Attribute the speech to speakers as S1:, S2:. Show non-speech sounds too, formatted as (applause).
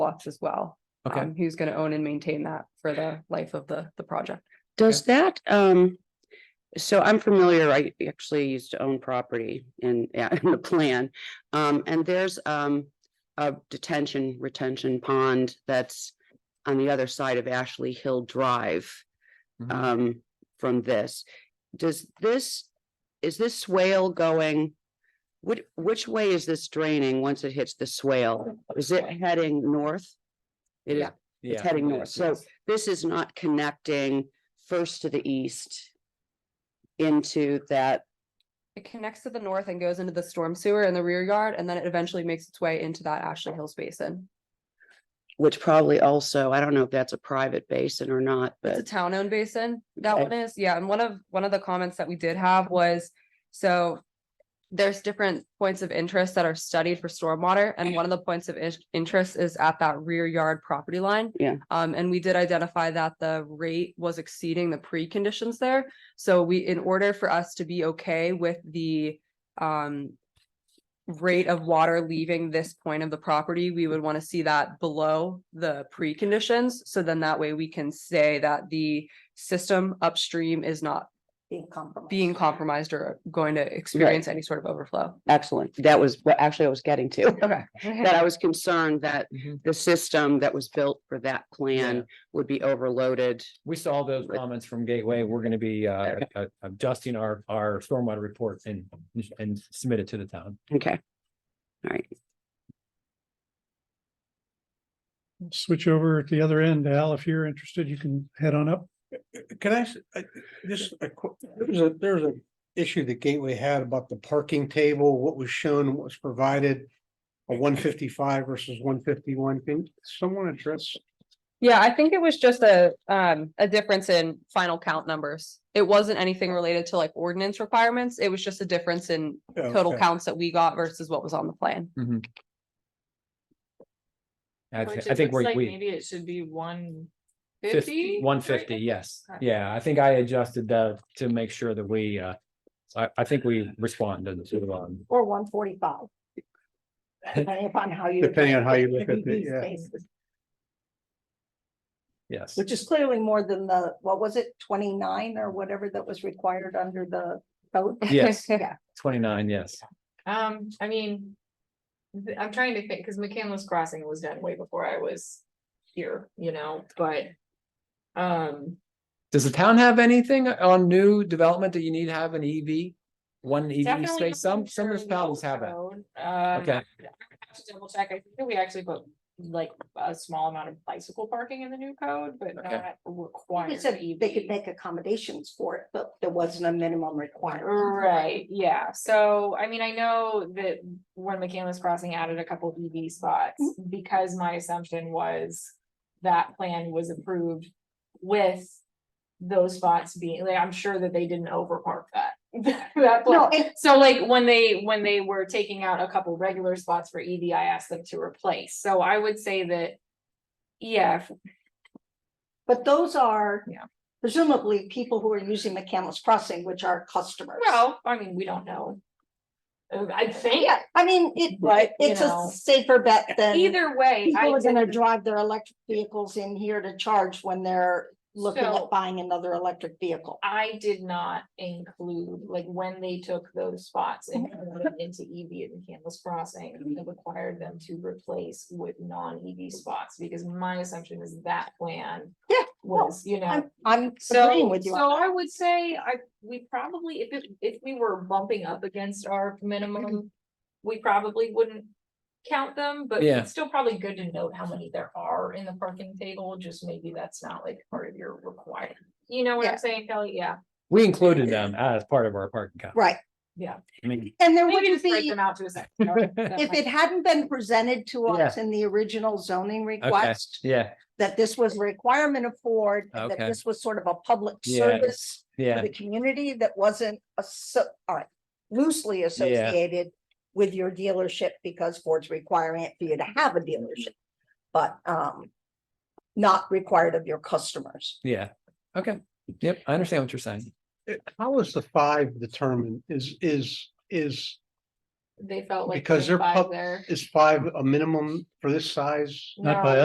S1: lots as well.
S2: Okay.
S1: um, Who's gonna own and maintain that for the life of the, the project.
S3: Does that, um, so I'm familiar, I actually used to own property in, (laughs) yeah, in the plan. Um, and there's, um, a detention retention pond that's on the other side of Ashley Hill Drive.
S2: Mhm.
S3: Um, from this, does this, is this swale going? Which, which way is this draining once it hits the swale? Is it heading north? It is
S1: Yeah.
S2: Yeah,
S3: heading
S2: it
S3: north,
S2: is,
S3: so-
S2: yes.
S3: this is not connecting first to the east into that,
S1: It connects to the north and goes into the storm sewer in the rear yard, and then it eventually makes its way into that Ashley Hills basin.
S3: which probably also, I don't know if that's a private basin or not,
S1: It's a
S3: but
S1: town-owned basin. That
S3: Okay.
S1: one is, yeah, and one of, one of the comments that we did have was, so. There's different points of interest that are studied for stormwater, and one of the points of in- interest is at that rear yard property line.
S3: Yeah.
S1: Um, and we did identify that the rate was exceeding the preconditions there. So we, in order for us to be okay with the, um. Rate of water leaving this point of the property, we would want to see that below the preconditions. So then that way we can say that the system upstream is not
S4: Being compromised.
S1: being compromised or going to experience any sort of overflow.
S3: excellent. That was what actually I was getting to.
S1: Okay.
S3: (laughs) That I was concerned that
S2: Mhm.
S3: the system that was built for that
S2: Yeah.
S3: plan would be overloaded.
S2: We saw those
S3: Right.
S2: comments from Gateway. We're gonna be uh uh, adjusting our our stormwater report and and submit it to the town.
S3: Okay. All right.
S5: switch over at the other end. Al, if you're interested, you can head on up.
S6: Can I, s- I- just, a qu- there was a, there was an issue that Gateway had about the parking table, what was shown, and what was provided. A one fifty-five versus one fifty-one, can someone address?
S1: Yeah, I think it was just a, um, a difference in final count numbers. It wasn't anything related to like ordinance requirements. It was just a difference in total
S6: Okay.
S1: counts that we got versus what was on the plan.
S2: I
S7: Which
S2: thi- I
S7: it
S2: think
S7: looks
S2: we
S7: like
S2: we
S7: maybe it should be one fifty?
S2: fifty, one fifty, yes.
S7: Okay.
S2: Yeah, I think I adjusted that to make sure that we uh I I think we responded to um
S4: Or one forty-five. Depending upon how you.
S6: Depending on how you look at it,
S4: these
S6: yeah.
S4: spaces,
S2: yes.
S4: Which is clearly more than the, what was it, twenty-nine or whatever that was required under the code?
S2: Yes,
S4: (laughs) Yeah.
S2: twenty-nine, yes.
S7: Um, I mean. th- I'm trying to think, cause McCandless Crossing was done way before I was here, you know, but. Um,
S2: Does the town have anything on new development that you need to have an EV? One EV
S7: definitely.
S2: space, some
S7: I'm
S2: some
S7: sure
S2: municipalities have it.
S7: Road, Um,
S2: Okay,
S7: have to double check. I think that we actually put like a small amount of bicycle parking in the new code, but
S2: Okay.
S7: not
S4: They
S7: required.
S4: said they could
S7: EV.
S4: make accommodations for it, but there wasn't a minimum requirement.
S7: Right, yeah, so I mean, I know that when McCandless Crossing added a couple EV spots,
S4: Mm-hmm.
S7: because my assumption was. That plan was approved with those spots being, like, I'm sure that they didn't overpark that. (laughs) That
S4: No,
S7: plan,
S4: and
S7: so like when they, when they were taking out a couple regular spots for EV, I asked them to replace, so I would say that. Yeah, if-
S4: but those are.
S7: Yeah.
S4: Presumably people who are using McCandless Crossing, which are customers.
S7: well, I mean, we don't know. Uh, I think
S4: Yeah, I mean, it,
S7: But, you
S4: it's a
S7: know,
S4: safer bet than.
S7: either way. I
S4: People are gonna
S7: didn't-
S4: drive their electric vehicles in here to charge when they're looking
S7: So-
S4: at buying another electric vehicle.
S7: I did not include, like, when they took those spots and
S4: Mm-hmm.
S7: converted into EV at McCandless Crossing, it required them to replace with non-EV spots, because my assumption is that plan
S4: Yeah,
S7: was, you know,
S4: I'm, I'm agreeing
S7: so,
S4: with you.
S7: so
S4: on
S7: I would say I, we probably, if it, if we were bumping up against our
S4: Mm-hmm.
S7: minimum, we probably wouldn't count them, but
S2: Yeah.
S7: it's still probably good to note how many there are in the parking table, just maybe that's not like part of your requirement. You know what
S4: Yeah.
S7: I'm saying, Kelly? Yeah.
S2: we included them as part of our parking
S4: that.
S2: count.
S4: Right,
S2: I mean,
S4: and there
S7: Maybe
S4: wouldn't
S7: just break
S4: be,
S7: them out to a second. If
S4: (laughs) if it hadn't been presented to us in the original zoning request,
S2: yeah,
S4: that this was a requirement of Ford, and that
S2: Okay.
S4: this was sort of a public
S2: Yes.
S4: service for
S2: yeah,
S4: the community that wasn't asso- uh, loosely associated with your dealership because Ford's requiring it for you to have a dealership. But, um, not required of your customers.
S2: yeah. Okay, yep, I understand what you're saying.
S6: How is the five determined? Is, is, is,
S7: They felt like.
S6: Because
S7: there's
S6: they're
S7: five
S6: pub-
S7: there.
S6: is five a minimum for this size?
S7: No.